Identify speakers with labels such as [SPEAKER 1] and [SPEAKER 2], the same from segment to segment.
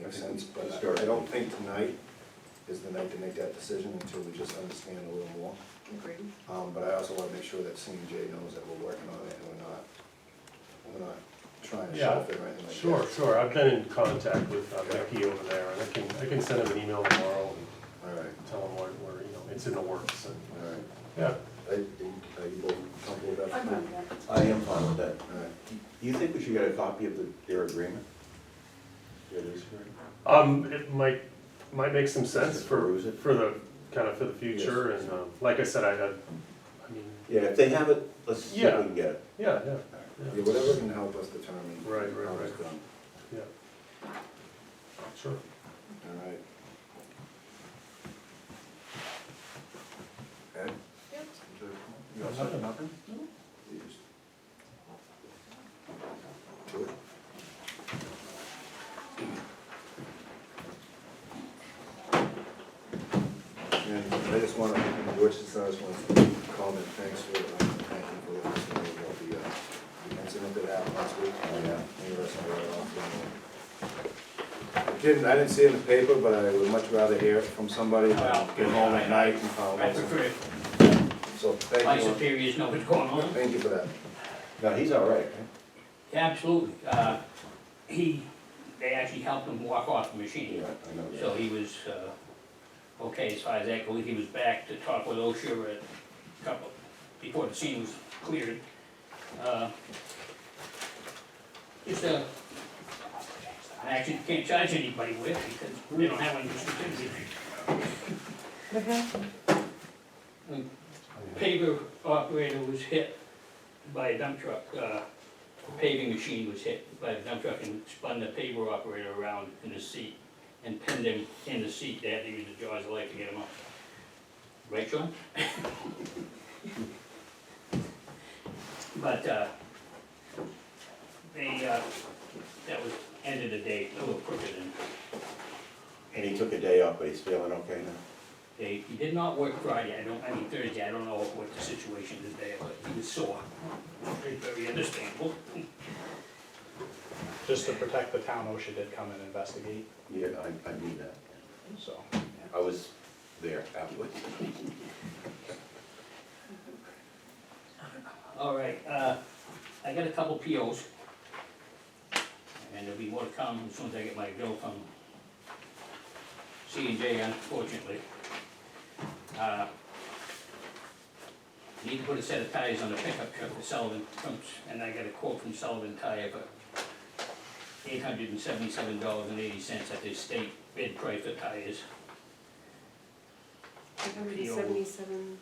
[SPEAKER 1] makes sense, but
[SPEAKER 2] Start.
[SPEAKER 1] I don't think tonight is the night to make that decision until we just understand a little more.
[SPEAKER 3] Agreed.
[SPEAKER 1] Um, but I also wanna make sure that C and J knows that we're working on it and we're not, we're not trying to
[SPEAKER 4] Yeah,
[SPEAKER 1] shelf it or anything like that.
[SPEAKER 4] Sure, sure, I've been in contact with uh, Becky over there, and I can, I can send him an email tomorrow and
[SPEAKER 1] Alright,
[SPEAKER 4] tell him what, where, you know, it's in the works, and,
[SPEAKER 1] alright.
[SPEAKER 4] yeah.
[SPEAKER 1] Are you are you both comfortable with that?
[SPEAKER 3] I'm on that.
[SPEAKER 2] I am fine with that.
[SPEAKER 1] Alright,
[SPEAKER 2] Do you think we should get a copy of the, their agreement? Their lease agreement?
[SPEAKER 4] Um, it might, might make some sense for,
[SPEAKER 2] Peruse it.
[SPEAKER 4] for the, kind of for the future, and, um, like I said, I, I, I mean,
[SPEAKER 2] Yeah, if they have it, let's see if we can get it.
[SPEAKER 4] yeah, yeah,
[SPEAKER 1] yeah, whatever can help us determine.
[SPEAKER 4] Right, right,
[SPEAKER 1] how it's
[SPEAKER 4] right.
[SPEAKER 1] done.
[SPEAKER 4] yeah. Sure.
[SPEAKER 1] Alright. Ed?
[SPEAKER 3] Yep.
[SPEAKER 1] You all set? Nothing? And I just wanna, George, just I just wanna comment, thanks for, um, thank you for listening about the, uh, the incident that happened last week. uh, Yeah. Interesting, right off. I Didn't, uh, I didn't see it in the paper, but I would much rather hear it from somebody than
[SPEAKER 5] Well,
[SPEAKER 1] get home at night and find
[SPEAKER 5] I
[SPEAKER 1] out.
[SPEAKER 5] prefer if
[SPEAKER 1] So,
[SPEAKER 5] my
[SPEAKER 1] thank you,
[SPEAKER 5] superiors know what's going on.
[SPEAKER 1] thank you for that.
[SPEAKER 2] No, he's all right, right?
[SPEAKER 5] Absolutely. Uh, He, they actually helped him walk off the machine.
[SPEAKER 2] Yeah, I know
[SPEAKER 5] So
[SPEAKER 2] that.
[SPEAKER 5] he was, uh, okay, as far as that goes, he was back to talk with OSHA a couple, before the scene was cleared. Uh, Just uh I actually can't charge anybody with because we don't have any certificates. A Paver operator was hit by a dump truck, uh, paving machine was hit by a dump truck and spun the paver operator around in his seat and pinned him in the seat, they had to use the jaws of life to get him up. Right, John? But, uh, they, uh, that was end of the day, a little crooked and
[SPEAKER 2] And he took a day off, but he's feeling okay now?
[SPEAKER 5] they, he did not work Friday, I don't, I mean Thursday, I don't know what the situation is there, but he was sore. Very, Very understandable.
[SPEAKER 6] Just to protect the town, OSHA did come and investigate,
[SPEAKER 2] Yeah, I, I need that.
[SPEAKER 6] so.
[SPEAKER 2] I was there afterwards.
[SPEAKER 5] All right, uh, I got a couple POs. And there'll be more to come as soon as I get my bill from C and J unfortunately. Uh, Need to put a set of tires on the pickup truck for Sullivan, from- and I got a quote from Sullivan Tire for eight hundred and seventy-seven dollars and eighty cents at the state bid price for tires.
[SPEAKER 3] Eight hundred and seventy-seven,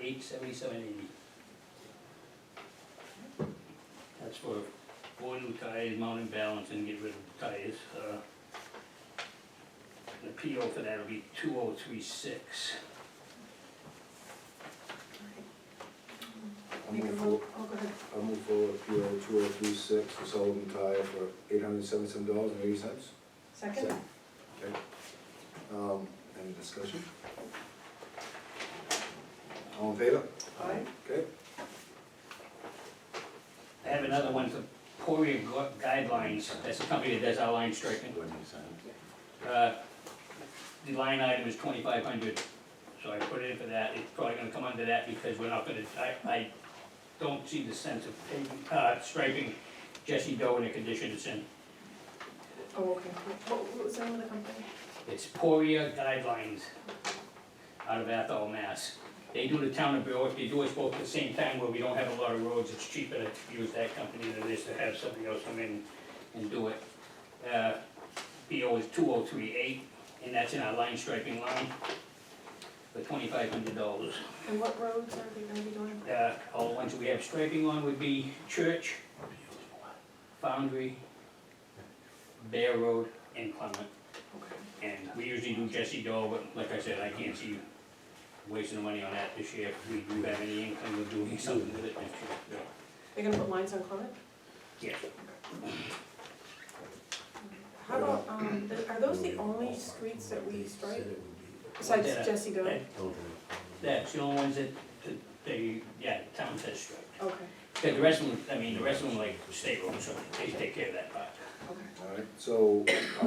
[SPEAKER 5] Eight seventy-seven eighty. That's for four new tires, mount and balance, and get rid of the tires. uh, The PO for that will be two oh three six.
[SPEAKER 1] I'll
[SPEAKER 3] make a
[SPEAKER 1] move
[SPEAKER 3] vote,
[SPEAKER 1] for,
[SPEAKER 3] oh, go ahead.
[SPEAKER 1] I'll move for PO two oh three six to Sullivan Tire for eight hundred seventy-seven dollars and eighty cents.
[SPEAKER 3] Second?
[SPEAKER 1] Second. Okay. Um, any discussion? All in favor?
[SPEAKER 3] Aye.
[SPEAKER 1] Okay.
[SPEAKER 5] I have another one for Poria Gu- Guidelines, that's the company that does our line striping.
[SPEAKER 2] When he signed.
[SPEAKER 5] Uh, The line item is twenty-five hundred, so I put it in for that, it's probably gonna come under that because we're not gonna, I, I don't see the sense of paving, uh, striping Jesse Doe in the condition it's in.
[SPEAKER 3] Oh, okay, what, what was the name of the company?
[SPEAKER 5] It's Poria Guidelines out of Athol, Mass. They do the town of Berwick, they do us both at the same time where we don't have a lot of roads, it's cheaper to use that company than it is to have somebody else come in and do it. Uh, BO is two oh three eight, and that's in our line striping line for twenty-five hundred dollars.
[SPEAKER 3] And what roads are they gonna be doing?
[SPEAKER 5] Uh, all the ones we have striping on would be Church, Foundry, Bear Road, and Clement.
[SPEAKER 3] Okay.
[SPEAKER 5] And we usually do Jesse Doe, but like I said, I can't see wasting money on that this year. If we do have any income of doing something with it next year.
[SPEAKER 3] They're gonna put lines on Clement?
[SPEAKER 5] Yes.
[SPEAKER 3] How about, um, th- are those the only streets that we strike, besides
[SPEAKER 5] Yeah.
[SPEAKER 3] Jesse Doe?
[SPEAKER 5] That- That's the only ones that, that they, yeah, the town says strike.
[SPEAKER 3] Okay,
[SPEAKER 5] Because the rest of them, I mean, the rest of them like state roads, so they take care of that part.
[SPEAKER 3] okay.
[SPEAKER 1] I All right, so